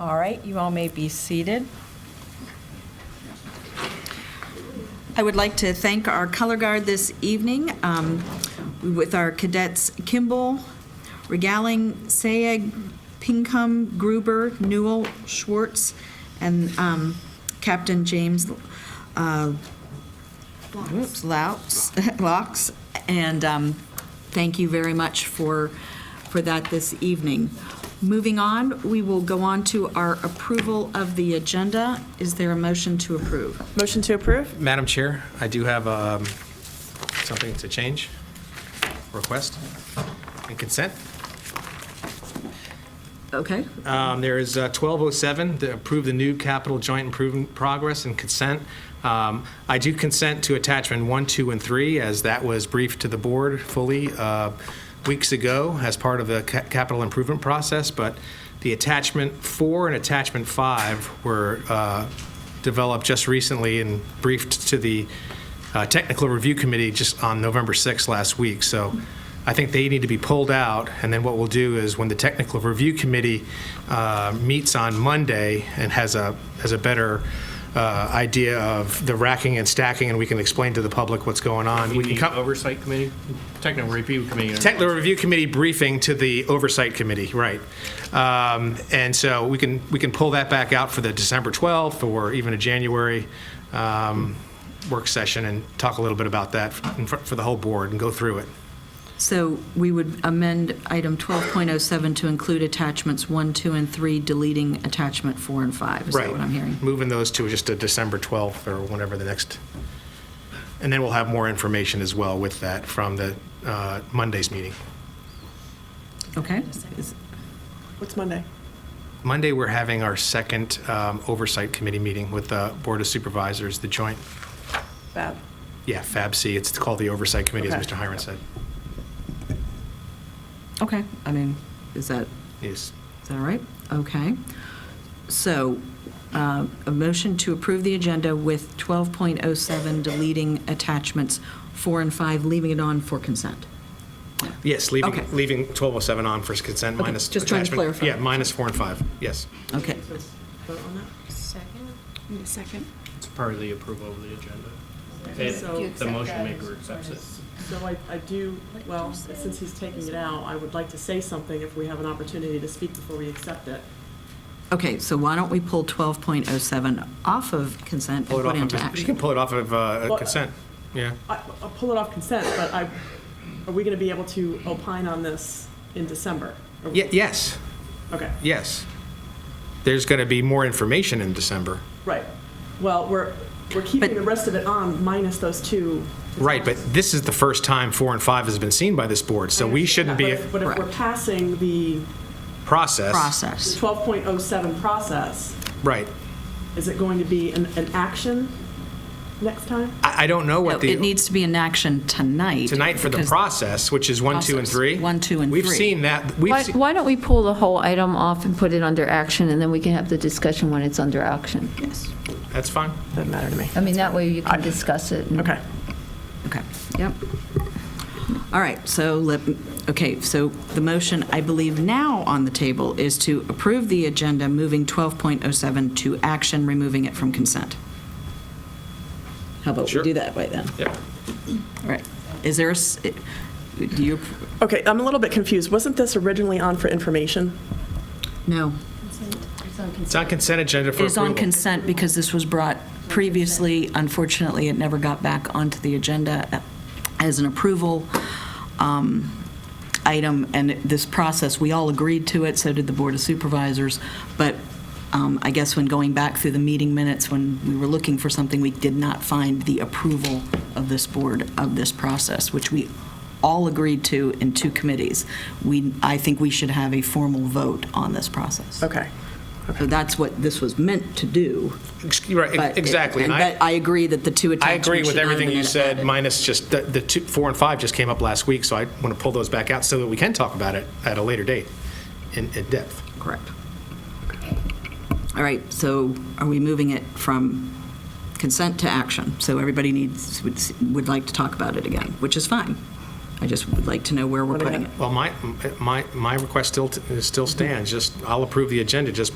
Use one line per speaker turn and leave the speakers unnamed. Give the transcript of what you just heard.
All right, you all may be seated.
I would like to thank our color guard this evening um, with our cadets Kimball, Regaling, Sayeg, Pinkham, Gruber, Newell, Schwartz, and um, Captain James uh, whoops, Louts, Locks. And um, thank you very much for, for that this evening. Moving on, we will go on to our approval of the agenda. Is there a motion to approve?
Motion to approve?
Madam Chair, I do have um, something to change, request, and consent.
Okay.
Um, There is uh, 1207, to approve the new capital joint improvement progress and consent. Um, I do consent to attachment one, two, and three, as that was briefed to the board fully uh, weeks ago as part of the ca- capital improvement process, but the attachment four and attachment five were uh, developed just recently and briefed to the uh, Technical Review Committee just on November 6th last week. So I think they need to be pulled out, and then what we'll do is when the Technical Review Committee uh, meets on Monday and has a, has a better uh, idea of the racking and stacking, and we can explain to the public what's going on. We can
The
come,
Oversight Committee, Technical Review Committee.
Technical Review Committee briefing to the Oversight Committee, right. Um, And so we can, we can pull that back out for the December 12th or even a January um, work session and talk a little bit about that in fr- for the whole board and go through it.
So we would amend item 12.07 to include attachments 1, 2, and 3, deleting attachment 4 and 5. Is that what I'm hearing?
Moving those to just a December 12th or whenever the next, and then we'll have more information as well with that from the uh, Monday's meeting.
Okay? Is-
What's Monday?
Monday, we're having our second um, Oversight Committee meeting with the Board of Supervisors, the joint
Fab.
Yeah, FABC, it's called the Oversight Committee, as
Okay.
Mr. Hiron said.
Okay, I mean, is that,
Yes.
is that all right? Okay. So uh, a motion to approve the agenda with 12.07 deleting attachments 4 and 5, leaving it on for consent.
Yes,
Okay.
leaving, leaving 1207 on for consent
Okay,
minus.
just trying to
attachment-
clarify.
Yeah, minus four and five, yes.
Okay.
Second.
Need a second?
It's part of the approval of the agenda. If The motion maker accepts it.
So I, I do, well, since he's taking it out, I would like to say something if we have an opportunity to speak before we accept it.
Okay, so why don't we pull 12.07 off of consent
Pull
and
it off
put it
of-
into
You can
action? uh,
pull it off of uh,
Well,
consent, yeah.
I, I'll pull it off consent, but I, are we gonna be able to opine on this in December? Are we-
Ye- Yes,
Okay,
yes. There's going to be more information in December.
right. Well, we're, we're keeping
But-
the rest of it on minus those two.
Right, but this is the first time four and five has been seen by this board, so we shouldn't
But
be
if- But if we're
Correct.
passing the
process.
Process.
12.07 process,
Right.
is it going to be an, an action next time?
I, I don't know
No,
what the.
It needs to be in action tonight.
Tonight for the
because-
process, which is one, two, and
Process.
three.
One, two, and
We've
three.
seen that, we've
Why,
seen.
why don't we pull the whole item off and put it under action, and then we can have the discussion when it's under action?
That's fine.
Doesn't matter to me.
I mean, that way you can discuss it. and-
Okay.
Okay, yep. All right, so let, okay, so the motion, I believe now on the table is to approve the agenda, moving 12.07 to action, removing it from consent. How about we
Sure.
do that way then?
Yep.
All right. Is there, a s- do you,
Okay, I'm a little bit confused. Wasn't this originally on for information?
no.
It's on consent agenda for
It
approval.
is on consent because this was brought previously. Unfortunately, it never got back onto the agenda as an approval um, item, and this process, we all agreed to it, so did the Board of Supervisors, but um, I guess when going back through the meeting minutes, when we were looking for something, we did not find the approval of this board of this process, which we all agreed to in two committees. We, I think we should have a formal vote on this process.
Okay.
So that's what this was meant to do.
Ex- Right,
but
ex-
it-
exactly. And
and
I,
But I agree that the two
I
attachments.
agree with
should not have
everything
been
you said,
added.
minus just the, the two, four and five just came up last week, so I want to pull those back out so that we can talk about it at a later date in, in depth.
Correct. All right, so are we moving it from consent to action? So everybody needs, would, would like to talk about it again, which is fine. I just would like to know where we're putting it.
Well, my, my, my request still, t- still stands, just, I'll approve the agenda, just